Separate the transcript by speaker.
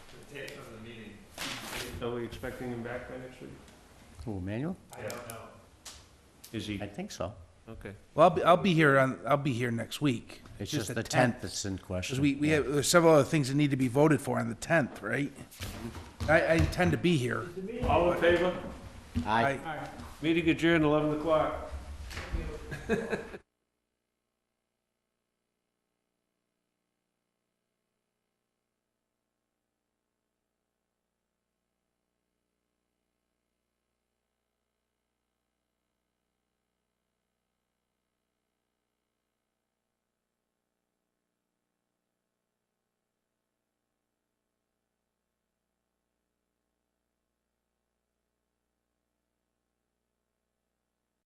Speaker 1: Are we expecting him back by next week?
Speaker 2: Who, Emmanuel?
Speaker 1: I don't know. Is he,
Speaker 2: I think so.
Speaker 1: okay.
Speaker 3: Well, I'll be, I'll be here on, I'll be here next week.
Speaker 2: It's just the tenth that's in question.
Speaker 3: Because we, we
Speaker 2: Yeah.
Speaker 3: have, there's several other things that need to be voted for on the tenth, right? I, I intend to be here.
Speaker 1: All in favor?
Speaker 2: Aye.
Speaker 3: I-
Speaker 1: Meeting adjourned, eleven o'clock.